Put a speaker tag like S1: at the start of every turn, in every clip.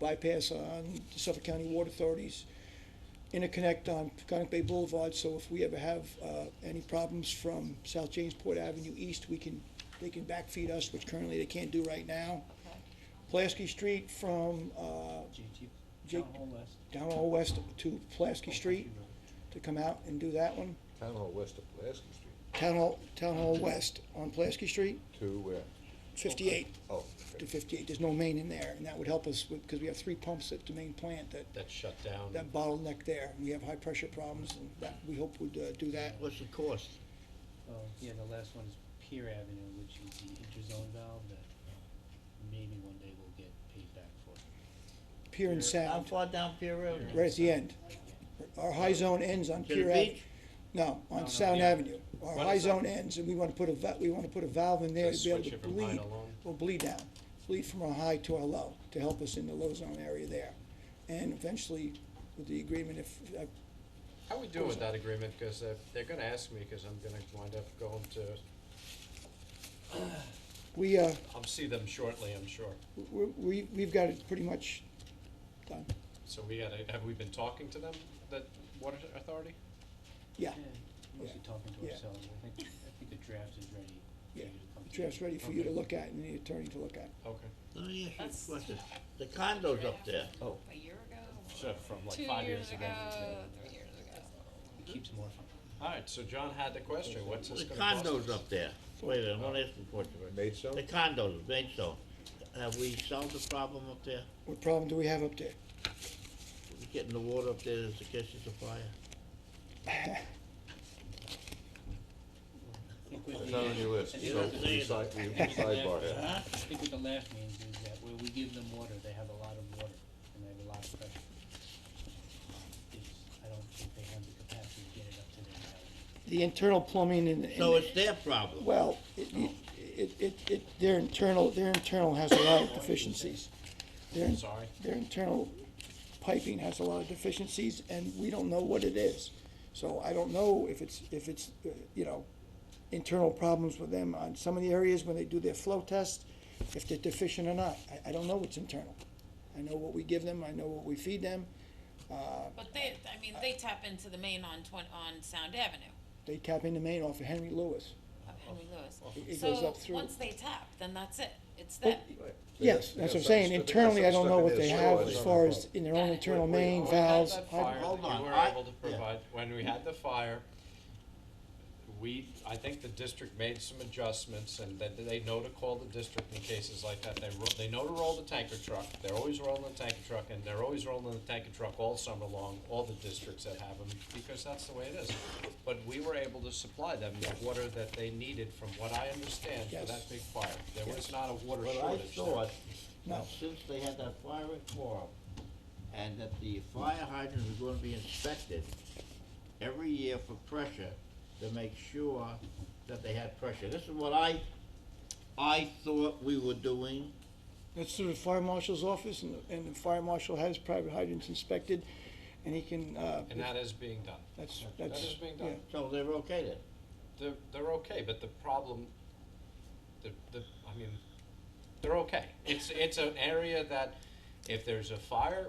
S1: bypass on Suffolk County Water Authorities, interconnect on Conic Bay Boulevard, so if we ever have uh, any problems from South Jamesport Avenue East, we can, they can backfeed us, which currently they can't do right now. Plasky Street from uh,
S2: JT,
S1: J-
S2: Town Hall West.
S1: down all west to Plasky Street to come out and do that one.
S3: Town Hall West of Pulaski Street,
S1: Town Hall, Town Hall West on Plasky Street,
S3: to where?
S1: fifty-eight
S3: Oh,
S1: to
S3: okay.
S1: fifty-eight, there's no main in there, and that would help us, because we have three pumps at the main plant that,
S4: That's shut down.
S1: that bottleneck there. We have high pressure problems, and that, we hope would uh, do that.
S4: What's the cost?
S2: Well, yeah, the last one is Pier Avenue, which is the interzone valve that maybe one day we'll get paid back for.
S1: Pier and
S5: How
S1: Sound,
S5: far down Pier Road?
S1: right at the end. Our high zone ends on
S5: To
S1: Pier
S5: the
S1: Avenue.
S5: beach?
S1: No,
S2: No,
S1: on
S2: no,
S1: Sound
S2: yeah.
S1: Avenue. Our high zone ends, and we wanna put a va- we wanna put a valve in there to
S4: Just
S1: be able
S4: switch
S1: to
S4: it from high
S1: bleed,
S4: to low?
S1: well, bleed down. Bleed from our high to our low, to help us in the low zone area there. And eventually, with the agreement, if, uh,
S4: How we doing with that agreement? Because they're gonna ask me, because I'm gonna wind up going to,
S1: we, uh,
S4: I'll see them shortly, I'm sure.
S1: we, we- we've got it pretty much done.
S4: So we gotta, have we been talking to them, the water authority?
S1: Yeah,
S2: Mostly talking to
S1: Yeah.
S2: ourselves, I think, I think the draft is ready. for
S1: yeah.
S2: you to come
S1: The
S2: through.
S1: draft's ready for you to look at and the attorney to look at.
S4: Okay.
S5: Let me
S6: That's-
S5: ask you a question. The condos up there,
S3: Oh,
S6: a year ago,
S4: So from
S6: two
S4: like five
S6: years
S4: years
S6: ago,
S4: ago.
S6: three years ago.
S2: It keeps morphing.
S4: All right, so John had the question, what's
S5: the
S4: this gonna cost?
S5: condos
S4: us?
S5: up there. Wait a minute, I'm not asking for it.
S3: Maidstone?
S5: The condos, Maidstone. Have we solved the problem up there?
S1: What problem do we have up there?
S5: We Getting the water up there that's catching the fire?
S2: I think with
S3: It's
S2: the-
S3: not on your list,
S2: I
S3: so
S2: think
S5: Yeah.
S2: with the-
S3: we side, we sidebar here.
S5: Huh?
S2: I think with the last means is that where we give them water, they have a lot of water, and they have a lot of pressure. It's, I don't think they have the capacity to get it up to their level.
S1: The internal plumbing and. and-
S5: So it's their problem.
S1: Well, it, it, it, it, their internal, their internal has a lot of deficiencies. Their,
S4: Sorry.
S1: their internal piping has a lot of deficiencies, and we don't know what it is. So I don't know if it's, if it's, uh, you know, internal problems with them on some of the areas when they do their flow test, if they're deficient or not. I, I don't know what's internal. I know what we give them, I know what we feed them.
S6: But they, I mean, they tap into the main on twen- on Sound Avenue
S1: They tap into Maine off of Henry Lewis.
S6: of Henry
S1: It-
S6: Lewis.
S1: it goes up
S6: So,
S1: through.
S6: once they tap, then that's it, it's
S1: Well,
S6: them.
S1: Yes, that's what I'm saying, internally, I don't know what they have as far as in their own internal main valves.
S4: When we had that
S5: Hold
S4: fire that
S5: on,
S4: you were
S5: I-
S4: able to
S5: yeah.
S4: provide, when we had the fire, we, I think the district made some adjustments and that they know to call the district in cases like that. They, ro- they know to roll the tanker truck, they're always rolling the tanker truck and they're always rolling the tanker truck all summer long, all the districts that have them, because that's the way it is. But we were able to supply them the water that they needed, from what I understand, for
S1: Yes.
S4: that big fire. There was not a water
S5: But
S4: shortage
S5: I
S4: there.
S5: thought,
S1: No.
S5: that since they had that fire at Coral, and that the fire hydrants were gonna be inspected every year for pressure, to make sure that they had pressure. This is what I, I thought we were doing.
S1: That's through the fire marshal's office, and, and the fire marshal has private hydrants inspected, and he can, uh,
S4: And that is being done.
S1: that's,
S4: That
S1: that's,
S4: is being
S1: yeah.
S4: done.
S5: So they were okay then?
S4: they're, they're okay, but the problem, the, the, I mean, they're okay. It's, it's an area that if there's a fire,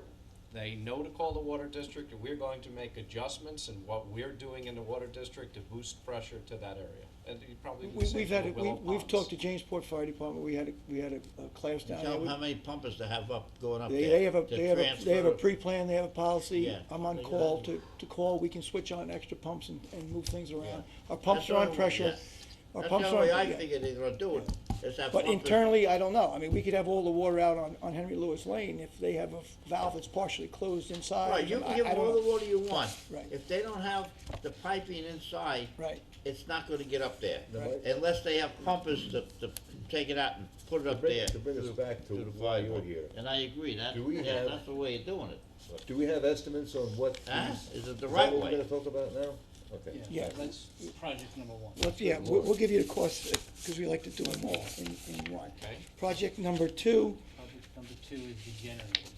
S4: they know to call the water district, and we're going to make adjustments in what we're doing in the water district to boost pressure to that area. And you probably
S1: We,
S4: would say
S1: we've had,
S4: for
S1: it- we,
S4: Willow
S1: we've
S4: Ponds.
S1: talked to Jamesport Fire Department, we had, a we had a, a class down
S5: Tell them how
S1: there.
S5: many pumpers they have up, going up there.
S1: They, they have a,
S5: to
S1: they have a, they have a
S5: transfer.
S1: pre-plan, they have a policy,
S5: Yeah.
S1: I'm on
S5: They got
S1: call
S5: it.
S1: to, to call, we can switch on extra pumps and, and move things around. Our
S5: That's
S1: pumps are
S5: the
S1: on
S5: way-
S1: pressure,
S5: yes.
S1: our
S5: That's the
S1: pumps
S5: only
S1: are on,
S5: way I
S1: yeah.
S5: figured they were doing, is that
S1: But
S5: pumpers-
S1: internally, I don't know. I mean, we could have all the water out on, on Henry Lewis Lane if they have a valve that's partially closed inside.
S5: Right, you
S1: I-
S5: can give
S1: I
S5: them
S1: don't
S5: all the
S1: know.
S5: water you want.
S1: Right.
S5: If they don't have the piping inside,
S1: Right.
S5: it's not gonna get up there.
S1: Right.
S5: Unless they have pumpers to, to take it out and put it up
S3: bring-
S5: there.
S3: to bring us back to
S5: the
S3: why you were
S5: firework.
S3: here.
S5: And I agree, that,
S3: Do we
S5: yeah,
S3: have-
S5: that's the way of doing it.
S3: Do we have estimates on what these?
S5: Huh? Is it
S3: that
S5: the right
S3: what we're
S5: way?
S3: gonna talk about now? Okay.
S1: Yeah.
S2: That's project number one.
S1: Let's, yeah, we'll, we'll give you the cost, because we like to do them all in, in one.
S4: Okay.
S1: Project number two,
S2: Project number two is the generators.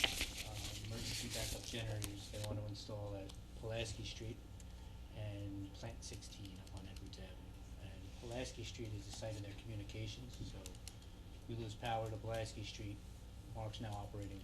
S2: Uh, Emergency backup generators they want to install at Pulaski Street and Plant sixteen up on Edwards Avenue. And Pulaski Street is the site of their communications, so we lose power to Pulaski Street. Mark's now operating